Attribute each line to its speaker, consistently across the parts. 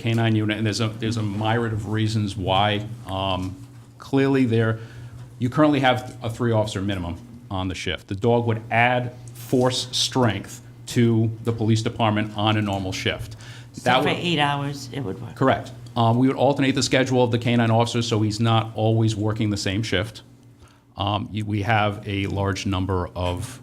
Speaker 1: K-9 unit, and there's a, there's a myriad of reasons why. Um, Clearly, there, you currently have a three-officer minimum on the shift. The dog would add force strength to the police department on a normal shift.
Speaker 2: So
Speaker 1: That
Speaker 2: for
Speaker 1: would.
Speaker 2: eight hours, it would work.
Speaker 1: Correct. Um, We would alternate the schedule of the canine officer, so he's not always working the same shift. Um, you- We have a large number of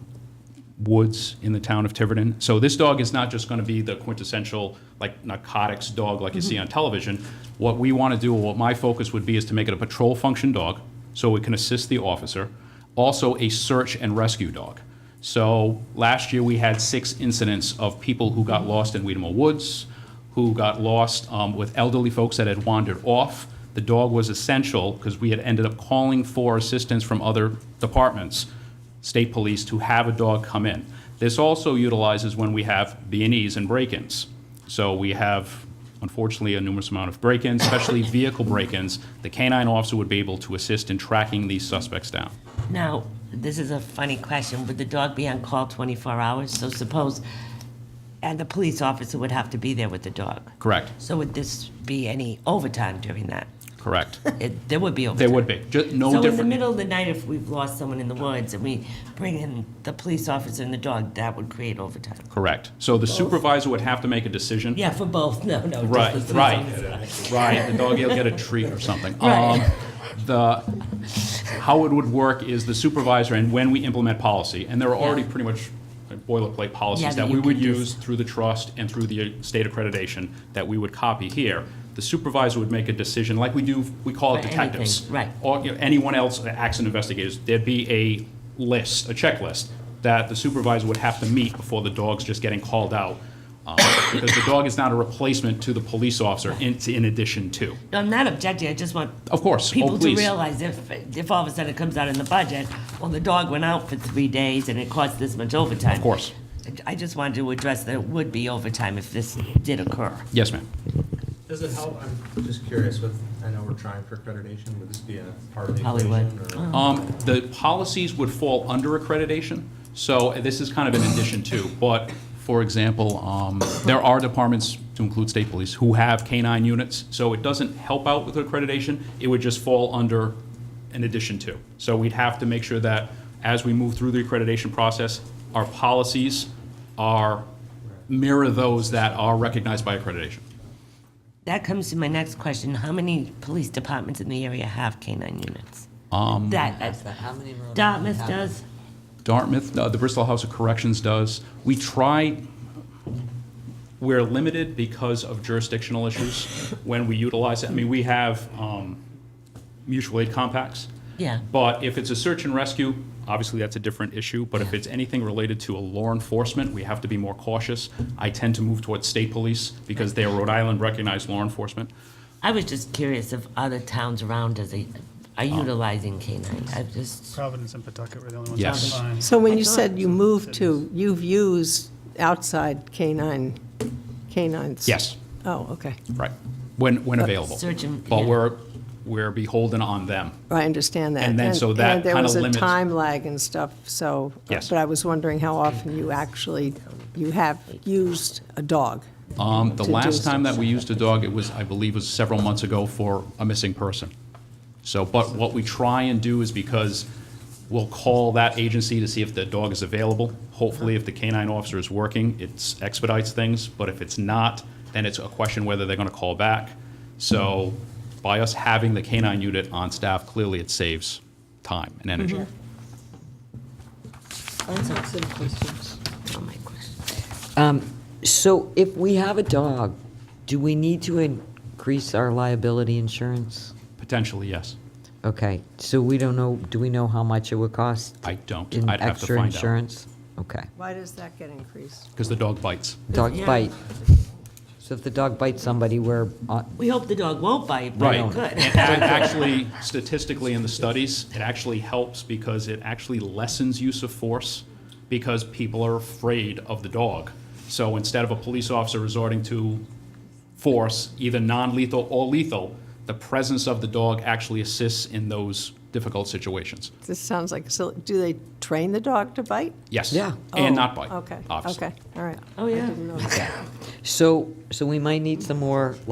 Speaker 1: woods in the town of Tiverton. So this dog is not just going to be the quintessential, like narcotics dog like you see on television. What we want to do, or what my focus would be, is to make it a patrol function dog, so it can assist the officer. Also, a search and rescue dog. So last year, we had six incidents of people who got lost in Weedemo Woods, who got lost um, with elderly folks that had wandered off. The dog was essential because we had ended up calling for assistance from other departments, state police, to have a dog come in. This also utilizes when we have B&Es and break-ins. So we have, unfortunately, a numerous amount of break-ins, especially vehicle break-ins. The canine officer would be able to assist in tracking these suspects down.
Speaker 2: Now, this is a funny question. Would the dog be on call 24 hours? So suppose, and the police officer would have to be there with the dog.
Speaker 1: Correct,
Speaker 2: So would this be any overtime during that?
Speaker 1: correct.
Speaker 2: It, there would be overtime.
Speaker 1: There would be, just no
Speaker 2: So
Speaker 1: different.
Speaker 2: in the middle of the night, if we've lost someone in the woods and we bring in the police officer and the dog, that would create overtime.
Speaker 1: Correct. So the supervisor would have to make a decision.
Speaker 2: Yeah, for both. No, no. just
Speaker 1: Right,
Speaker 2: the police
Speaker 1: right,
Speaker 2: officer.
Speaker 1: right. The dog will get a treat or something.
Speaker 2: Right.
Speaker 1: Um, The, how it would work is the supervisor and when we implement policy, and there are already pretty much boilerplate
Speaker 2: Yeah,
Speaker 1: policies
Speaker 2: that
Speaker 1: that
Speaker 2: you
Speaker 1: we would
Speaker 2: can just-
Speaker 1: use through the trust and through the uh, state accreditation that we would copy here. The supervisor would make a decision, like we do, we call it
Speaker 2: For anything,
Speaker 1: detectives.
Speaker 2: right.
Speaker 1: Or you know, anyone else, uh, accident investigators, there'd be a list, a checklist, that the supervisor would have to meet before the dog's just getting called out. um, Because the dog is not a replacement to the police officer in, in addition to.
Speaker 2: No, I'm not objecting. I just want
Speaker 1: Of course. Oh,
Speaker 2: people to
Speaker 1: please.
Speaker 2: realize if, if all of a sudden it comes out in the budget, well, the dog went out for three days and it cost this much overtime.
Speaker 1: Of course.
Speaker 2: I just wanted to address that it would be overtime if this did occur.
Speaker 1: Yes, ma'am.
Speaker 3: Does it help, I'm just curious with, I know we're trying for accreditation, would this be a part of the
Speaker 2: Hollywood.
Speaker 3: equation? or-
Speaker 1: Um, The policies would fall under accreditation, so this is kind of an addition to. But, for example, um, there are departments, to include state police, who have K-9 units, so it doesn't help out with accreditation, it would just fall under an addition to. So we'd have to make sure that as we move through the accreditation process, our policies are, mirror those that are recognized by accreditation.
Speaker 2: That comes to my next question. How many police departments in the area have K-9 units? Um. That, that's-
Speaker 4: But how many roads?
Speaker 2: Dartmouth
Speaker 4: have-
Speaker 2: does?
Speaker 1: Dartmouth, uh, the Bristol House of Corrections does. We try, we're limited because of jurisdictional issues when we utilize it. I mean, we have um, mutual aid compacts.
Speaker 2: Yeah.
Speaker 1: But if it's a search and rescue, obviously that's a different issue. But if it's anything related to a law enforcement, we have to be more cautious. I tend to move towards state police because they are Rhode Island recognized law enforcement.
Speaker 2: I was just curious if other towns around us
Speaker 1: Oh.
Speaker 2: are utilizing K-9. I just,
Speaker 5: Providence and Pawtucket were the only ones.
Speaker 1: Yes.
Speaker 5: that were fine.
Speaker 6: So when you
Speaker 2: thought-
Speaker 6: said you moved to, you've used outside canine, canines?
Speaker 1: Yes.
Speaker 6: Oh, okay.
Speaker 1: Right. When, when available.
Speaker 2: search and-
Speaker 1: But
Speaker 2: yeah.
Speaker 1: we're, we're beholden on them.
Speaker 6: I understand that.
Speaker 1: And then so that
Speaker 6: and there
Speaker 1: kinda
Speaker 6: was a
Speaker 1: limits-
Speaker 6: time lag and stuff, so. uh,
Speaker 1: Yes.
Speaker 6: But I was wondering how often you actually, you have used a dog.
Speaker 1: Um, The
Speaker 6: to do
Speaker 1: last time that
Speaker 6: such.
Speaker 1: we used a dog, it was, I believe, was several months ago for a missing person. So, but what we try and do is because we'll call that agency to see if the dog is available. Hopefully, if the canine officer is working, it expedites things, but if it's not, then it's a question whether they're going to call back. So by us having the canine unit on staff, clearly it saves time and energy.
Speaker 6: Mm-hmm.
Speaker 2: oh, my question.
Speaker 4: So if we have a dog, do we need to increase our liability insurance?
Speaker 1: Potentially, yes.
Speaker 4: Okay, so we don't know, do we know how much it would cost?
Speaker 1: I don't.
Speaker 4: in
Speaker 1: I'd have to find out.
Speaker 4: Extra insurance? Okay.
Speaker 6: Why does that get increased?
Speaker 1: Because the dog bites.
Speaker 4: Dog
Speaker 2: Yeah.
Speaker 4: bite. So if the dog bites somebody, we're, on-
Speaker 2: We hope the dog won't bite, but
Speaker 1: Right.
Speaker 2: it
Speaker 1: And
Speaker 2: could.
Speaker 1: a- actually, statistically in the studies, it actually helps because it actually lessens use of force because people are afraid of the dog. So instead of a police officer resorting to force, either non-lethal or lethal, the presence of the dog actually assists in those difficult situations.
Speaker 6: This sounds like, so, do they train the dog to bite?
Speaker 1: Yes.
Speaker 4: Yeah.
Speaker 1: And
Speaker 6: Oh,
Speaker 1: not bite,
Speaker 6: Okay,
Speaker 1: obviously.
Speaker 6: okay, all right.
Speaker 2: Oh, yeah.
Speaker 6: I didn't know that.
Speaker 4: so, so we might need some more